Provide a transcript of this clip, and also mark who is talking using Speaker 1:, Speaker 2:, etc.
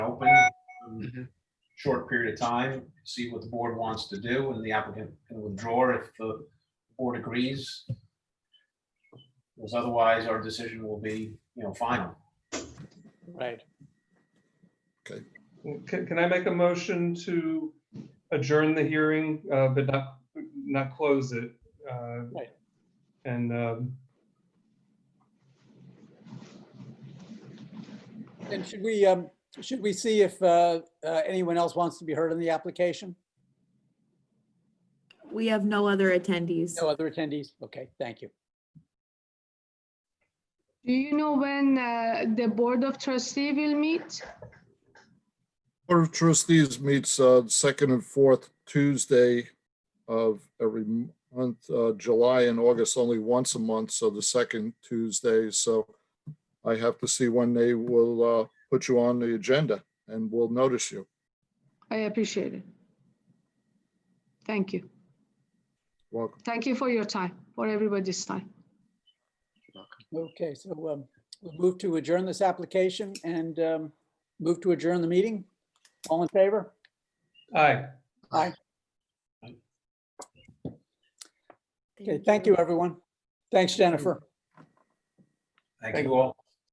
Speaker 1: um, short period of time, see what the board wants to do, and the applicant can withdraw if the board agrees. Because otherwise, our decision will be, you know, final.
Speaker 2: Right.
Speaker 3: Can, can I make a motion to adjourn the hearing, uh, but not, not close it? uh,
Speaker 2: Right.
Speaker 3: And, um,
Speaker 4: And should we, um, should we see if uh, uh, anyone else wants to be heard on the application?
Speaker 5: We have no other attendees.
Speaker 4: No other attendees? Okay, thank you.
Speaker 6: Do you know when uh, the Board of Trustee will meet?
Speaker 7: Board of Trustees meets uh, second and fourth Tuesday of every month, uh, July and August only once a month, so the second Tuesday. So I have to see when they will uh, put you on the agenda and we will notice you.
Speaker 6: I appreciate it. Thank you.
Speaker 7: Welcome.
Speaker 6: Thank you for your time, for everybody's time.
Speaker 4: Okay, so um, we'll move to adjourn this application and um, move to adjourn the meeting. All in favor?
Speaker 3: aye.
Speaker 4: Okay, thank you, everyone. Thanks, Jennifer.
Speaker 1: Thank you all.